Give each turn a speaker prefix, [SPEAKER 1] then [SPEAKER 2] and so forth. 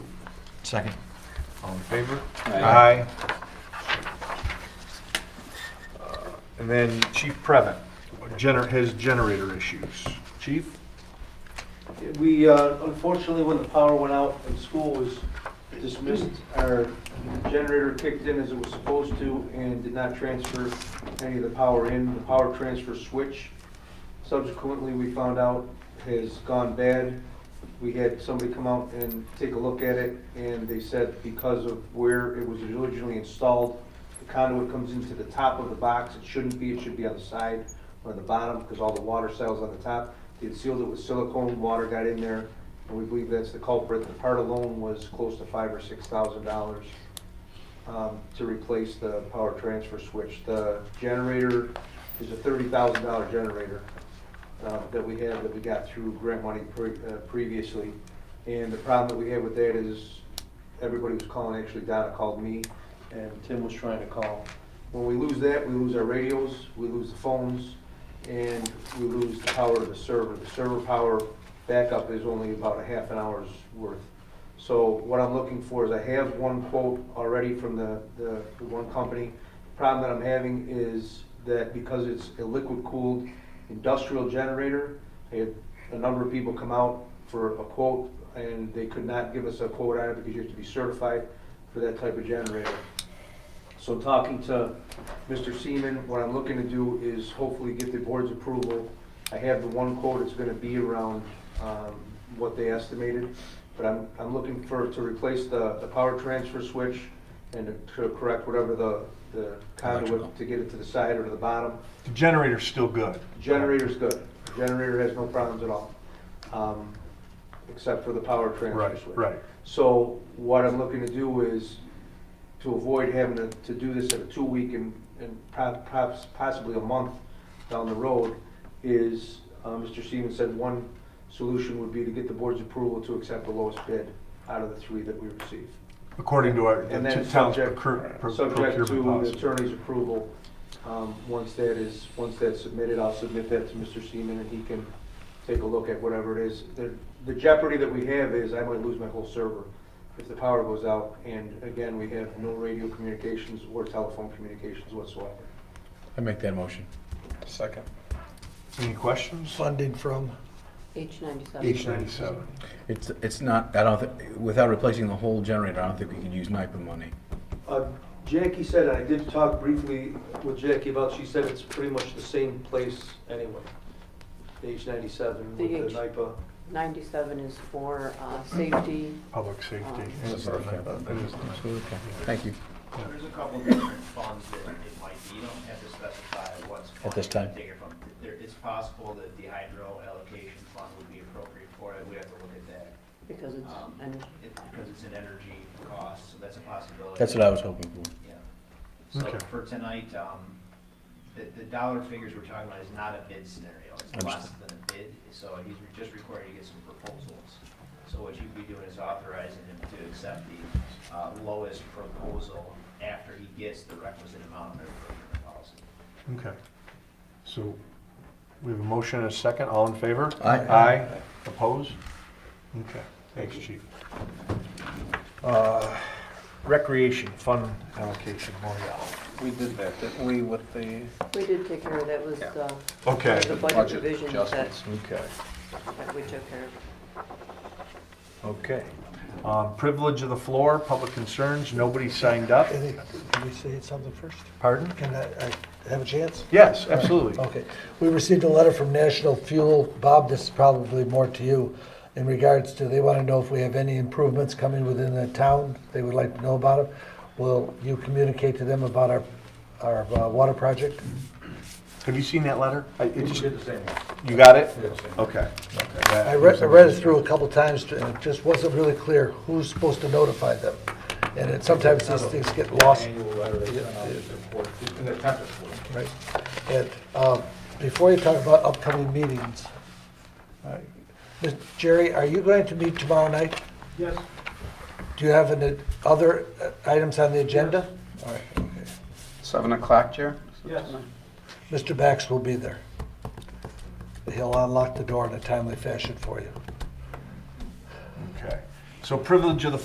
[SPEAKER 1] Second.
[SPEAKER 2] All in favor?
[SPEAKER 3] Aye.
[SPEAKER 2] Uh, And then Chief Prevent, gener, his generator issues. Chief?
[SPEAKER 4] We, uh, unfortunately, when the power went out and school was dismissed, our generator kicked in as it was supposed to and did not transfer any of the power in, the power transfer switch. Subsequently, we found out has gone bad. We had somebody come out and take a look at it, and they said because of where it was originally installed, the conduit comes into the top of the box, it shouldn't be, it should be on the side or the bottom, because all the water cells on the top. They had sealed it with silicone, water got in there, and we believe that's the culprit. The part alone was close to five or six thousand dollars um, to replace the power transfer switch. The generator is a thirty thousand dollar generator uh, that we have, that we got through grant money pre- uh, previously. And the problem that we had with that is, everybody was calling, actually Donna called me, and Tim was trying to call. When we lose that, we lose our radios, we lose the phones, and we lose the power of the server. The server power backup is only about a half an hour's worth. So what I'm looking for is I have one quote already from the, the the one company. Problem that I'm having is that because it's a liquid-cooled industrial generator, I had a number of people come out for a quote, and they could not give us a quote on it because you have to be certified for that type of generator. So talking to Mr. Seaman, what I'm looking to do is hopefully get the board's approval. I have the one quote, it's gonna be around, um, what they estimated, but I'm, I'm looking for, to replace the, the power transfer switch and to correct whatever the, the
[SPEAKER 1] Electrical.
[SPEAKER 4] conduit to get it to the side or to the bottom.
[SPEAKER 2] The generator's still good.
[SPEAKER 4] Generator's good, generator has no problems at all, um, except for the power transfer
[SPEAKER 2] Right,
[SPEAKER 4] switch.
[SPEAKER 2] right.
[SPEAKER 4] So what I'm looking to do is to avoid having to, to do this at a two-week and, and po- perhaps possibly a month down the road is, uh, Mr. Stevens said one solution would be to get the board's approval to accept the lowest bid out of the three that we receive.
[SPEAKER 2] According to our,
[SPEAKER 4] And then
[SPEAKER 2] the town's
[SPEAKER 4] subject,
[SPEAKER 2] procure- pro-
[SPEAKER 4] subject to
[SPEAKER 2] procurement
[SPEAKER 4] the
[SPEAKER 2] policy.
[SPEAKER 4] attorney's approval, um, once that is, once that's submitted, I'll submit that to Mr. Seaman and he can take a look at whatever it is. The the jeopardy that we have is I might lose my whole server if the power goes out. And again, we have no radio communications or telephone communications whatsoever.
[SPEAKER 3] I make that motion.
[SPEAKER 1] Second.
[SPEAKER 2] Any questions?
[SPEAKER 1] Funding from?
[SPEAKER 5] H ninety-seven.
[SPEAKER 2] H ninety-seven.
[SPEAKER 3] It's, it's not, I don't, thi- without replacing the whole generator, I don't think we can use NIPA money.
[SPEAKER 4] Uh, Jackie said, and I did talk briefly with Jackie about, she said it's pretty much the same place anyway. H ninety-seven
[SPEAKER 5] The
[SPEAKER 4] with
[SPEAKER 5] H.
[SPEAKER 4] the NIPA.
[SPEAKER 5] Ninety-seven is for, uh, safety.
[SPEAKER 2] Public safety.
[SPEAKER 1] Yes,
[SPEAKER 3] It's
[SPEAKER 1] sir.
[SPEAKER 3] okay. It's okay. Thank you.
[SPEAKER 6] There's a couple of different funds that it might be, you don't have to specify what's.
[SPEAKER 3] At this time.
[SPEAKER 6] Take it from, there, it's possible that the hydro allocation fund would be appropriate for it, we have to look at that.
[SPEAKER 5] Because it's,
[SPEAKER 6] Um,
[SPEAKER 5] and
[SPEAKER 6] It, because it's an energy cost, so that's a possibility.
[SPEAKER 3] That's what I was hoping for.
[SPEAKER 6] Yeah. So
[SPEAKER 2] Okay.
[SPEAKER 6] for tonight, um, the, the dollar figures we're talking about is not a bid scenario, it's less
[SPEAKER 3] Understood.
[SPEAKER 6] than a bid, so he's re- just required to get some proposals. So what you'd be doing is authorizing him to accept the, uh, lowest proposal after he gets the requisite amount of procurement policy.
[SPEAKER 2] Okay. So we have a motion and a second. All in favor?
[SPEAKER 3] Aye.
[SPEAKER 2] Aye. Opposed? Okay. Thanks, chief. Uh, Recreation fund allocation, Morial.
[SPEAKER 7] We did that, didn't we, with the,
[SPEAKER 5] we did take care of, that was, uh,
[SPEAKER 2] Okay.
[SPEAKER 5] the budget
[SPEAKER 7] Budget
[SPEAKER 5] revisions that,
[SPEAKER 7] adjustments.
[SPEAKER 2] Okay.
[SPEAKER 5] that we took care of.
[SPEAKER 2] Okay. Um, Privilege of the floor, public concerns, nobody signed up.
[SPEAKER 8] I think, Can we say something first?
[SPEAKER 2] Pardon?
[SPEAKER 8] Can I, I have a chance?
[SPEAKER 2] Yes, absolutely.
[SPEAKER 8] Okay. We received a letter from National Fuel, Bob, this is probably more to you, in regards to, they want to know if we have any improvements coming within the town, they would like to know about it. Will you communicate to them about our, our uh, water project?
[SPEAKER 2] Have you seen that letter? I- it just-
[SPEAKER 4] the same.
[SPEAKER 2] You got it? Okay.
[SPEAKER 8] I read, I read it through a couple times, to- and it just wasn't really clear who's supposed to notify them. And it, sometimes these things get lost. Right. And um, before you talk about upcoming meetings, uh, Mr. Jerry, are you going to meet tomorrow night?
[SPEAKER 4] Yes.
[SPEAKER 8] Do you have any other uh, items on the agenda? All right, okay.
[SPEAKER 7] 7 o'clock, Chair?
[SPEAKER 4] Yes.
[SPEAKER 8] Mr. Bax will be there. He'll unlock the door in a timely fashion for you.
[SPEAKER 2] Okay. So privilege of the